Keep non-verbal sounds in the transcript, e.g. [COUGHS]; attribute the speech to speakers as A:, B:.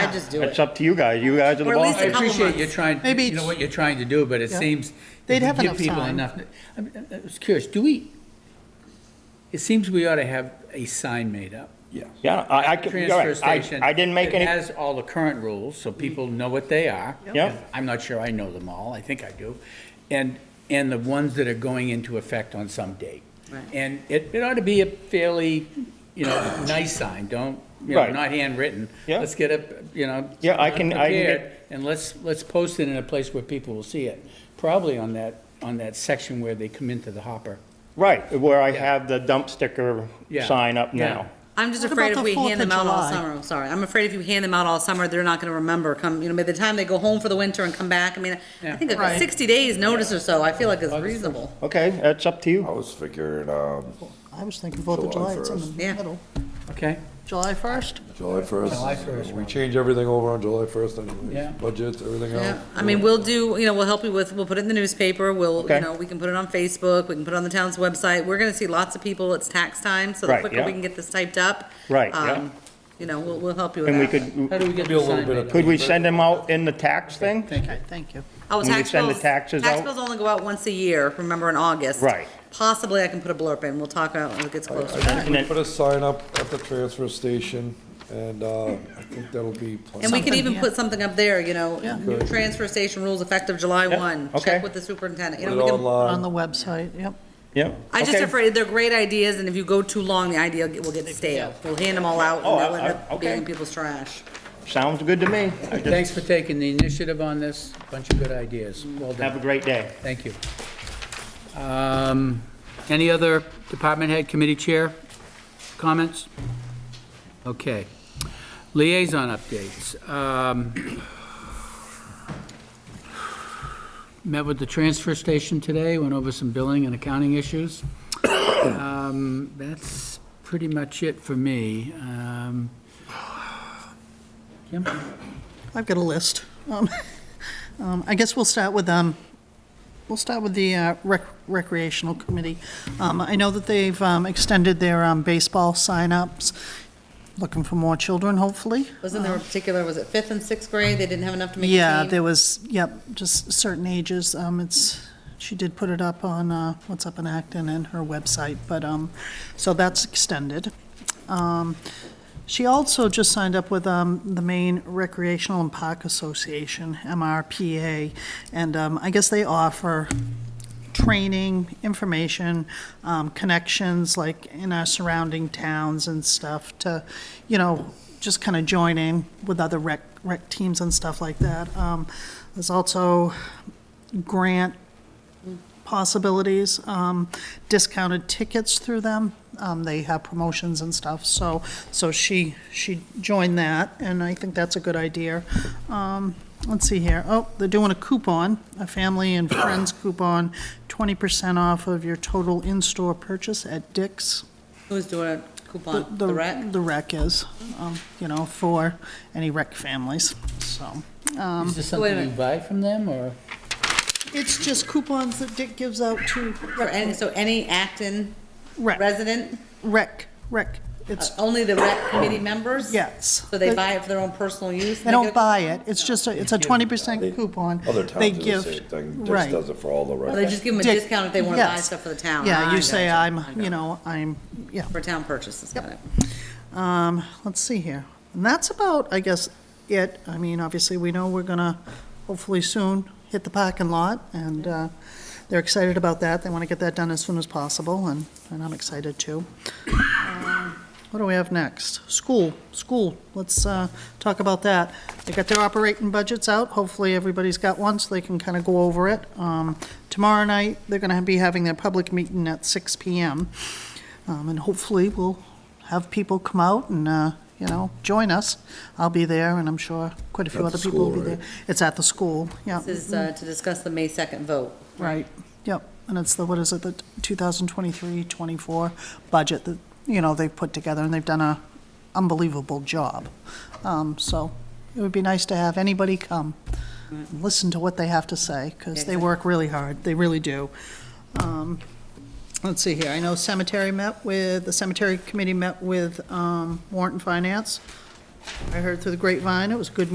A: I'd just do it.
B: It's up to you guys. You guys are the
A: Or at least
B: boss.
A: a
C: I
A: couple
C: appreciate you're
A: months.
C: trying,
D: Maybe
C: you know
D: it's-
C: what you're trying to do, but it
D: Yeah.
C: seems.
D: They'd
C: if we
D: have
C: give
D: enough
C: people
D: time.
C: enough- I mean, I was curious, do we, it seems we ought to have a sign made up.
B: Yeah, I, I, could- you're
C: Transfer
B: right. I,
C: station.
B: I didn't make
C: It
B: any,
C: has all the current rules, so people know what they are.
B: Yep.
C: I'm not sure I know them all, I think I do. And, and the ones that are going into effect on some date.
A: Right.
C: And it, it ought to be a fairly, you know, [COUGHS] nice sign, don't, you know,
B: Right.
C: not handwritten.
B: Yeah.
C: Let's get a, you know.
B: Yeah, I can- I can get-
C: prepared, And let's, let's post it in a place where people will see it, probably on that, on that section where they come into the hopper.
B: right, where I have the dump sticker
C: Yeah.
B: sign up
C: Yeah.
B: now.
A: I'm just
D: What
A: afraid
D: about
A: if
D: the
A: we
D: 4th
A: hand
D: of
A: them out all
D: July?
A: summer, I'm sorry, I'm afraid if you hand them out all summer, they're not gonna remember come, you know, by the time they go home for the winter and come back, I mean, I
C: Yeah.
A: think like
D: Right.
A: sixty days notice or so, I feel like is reasonable.
B: Okay, that's up to
E: I
B: you.
E: was figuring, um,
D: I was thinking Fourth of
E: July
D: July, it's in the
E: 1st.
A: Yeah.
D: middle.
C: Okay?
D: July 1st?
E: July first.
C: July 1st,
E: We
C: right.
E: change everything over on July first
C: Yeah.
E: anyways, budgets, everything else.
A: Yeah, I mean, we'll do, you know, we'll help you with, we'll put it in the newspaper, we'll,
B: Okay.
A: you know, we can put it on Facebook, we can put it on the town's website, we're gonna see lots of people, it's tax time, so the
B: Right,
A: quicker
B: yeah.
A: we can get this typed up.
B: Right, yeah.
A: um, You know, we'll, we'll help you with
B: And we
A: that.
C: How
B: could,
C: do we get
E: Be a
C: the
E: little
C: sign
E: bit
C: made
E: of-
C: up?
B: could we send them out in the tax thing?
C: Thank you.
D: Okay, thank you.
A: Oh,
B: When we
A: tax
B: send the
A: bills-
B: taxes
A: Tax
B: out?
A: bills only go out once a year, remember, in August.
B: Right.
A: Possibly I can put a blurb in, we'll talk about it when it gets closer.
B: And then-
E: Put a sign up at the transfer station and, uh, I think that'll be. plenty.
A: And we could
D: Something,
A: even
D: yeah.
A: put something up there, you know,
D: Yeah.
A: new transfer station rules effective July
B: Yeah,
A: one.
B: okay.
A: Check with the superintendent, you
E: Put it
A: know, we can,
C: Um,
D: On the
E: online.
D: website, yep.
B: Yeah.
A: I just
B: okay.
A: afraid they're great ideas, and if you go too long, the idea will get stale. We'll hand them all out,
B: Oh,
A: and they'll
B: I-
A: end
B: I-
A: up
B: okay.
A: being in people's trash.
B: Sounds good to me. I just-
C: Thanks for taking the initiative on this. Bunch of good ideas. Well
B: Have a
C: done.
B: great day.
C: Thank you. Um, Any other department head, committee chair comments? Okay. Liaison updates. Um, Met with the transfer station today, went over some billing and accounting issues. Um, That's pretty much it for me. Um, Kim?
D: I've got a list. Um, [LAUGHS] um, I guess we'll start with, um, we'll start with the uh, rec- recreational committee. Um, I know that they've um, extended their um, baseball signups, looking for more children, hopefully.
A: Wasn't there a particular, was it fifth and sixth grade? They didn't have enough to make
D: Uh-huh. Yeah,
A: a team?
D: there was, yep, just certain ages. Um, it's, she did put it up on, uh, What's Up in Acton and her website, but, um, so that's extended. Um, she also just signed up with, um, the Maine Recreational and Park Association, MRPA, and, um, I guess they offer training, information, um, connections, like in our surrounding towns and stuff to, you know, just kind of join in with other rec, rec teams and stuff like that. Um, there's also grant possibilities, um, discounted tickets through them. Um, they have promotions and stuff, so, so she, she joined that, and I think that's a good idea. Um, let's see here, oh, they're doing a coupon, a family
E: [COUGHS]
D: and friends coupon, twenty percent off of your total in-store purchase at Dick's.
A: Who's doing a coupon? The rec?
D: The rec is, um, you know, for any rec families, so.
C: Is this
A: Um, wait a
C: something you
A: minute.
C: buy from them, or?
D: It's just coupons that Dick gives out to
A: For any- So any Acton
D: rec,
A: resident,
D: rec, rec,
A: uh,
D: it's,
A: only the rec committee members?
D: yes.
A: So they buy it for their own personal use? and
D: Oh. They
A: get
D: don't
A: a-
D: buy it, it's just, a it's a twenty percent
E: They-
D: coupon.
E: Other
D: They
E: towns do the
D: give
E: same thing, just
D: Right.
E: does it for all the
A: Or They
E: records.
A: just give them a
D: Dick-
A: discount if they want to buy
D: yes.
A: stuff for the town? Ah,
D: Yeah,
A: I
D: you say
A: gotcha.
D: I'm,
A: I
D: you
A: got
D: know, I'm, yeah.
A: it. For town purchases, got it.
D: Um, let's see here. And that's about, I guess, it. I mean, obviously, we know we're gonna hopefully soon hit the parking lot, and, uh, they're excited about that. They wanna get that done as soon as possible, and, and I'm excited too. Um, What do we have next? School, school. Let's, uh, talk about that. They got their operating budgets out. Hopefully, everybody's got one, so they can kinda go over it. Um, tomorrow night, they're gonna be having their public meeting at six PM. Um, and hopefully, we'll have people come out and, uh, you know, join us. I'll be there, and I'm sure quite a few
E: At the
D: other people will be
E: school,
D: there. It's at the school, yeah,
A: This is uh, to discuss the May 2nd vote.
D: right, yep. And it's the, what is it, the 2023-24 budget that, you know, they've put together, and they've done a unbelievable job. Um, So it would be nice to have anybody come, and listen to what they have to say, because they
A: Exactly.
D: work really hard, they really do. Um, Let's see here, I know cemetery met with, the cemetery committee met with um, warrant and finance I heard through the grapevine, it was a good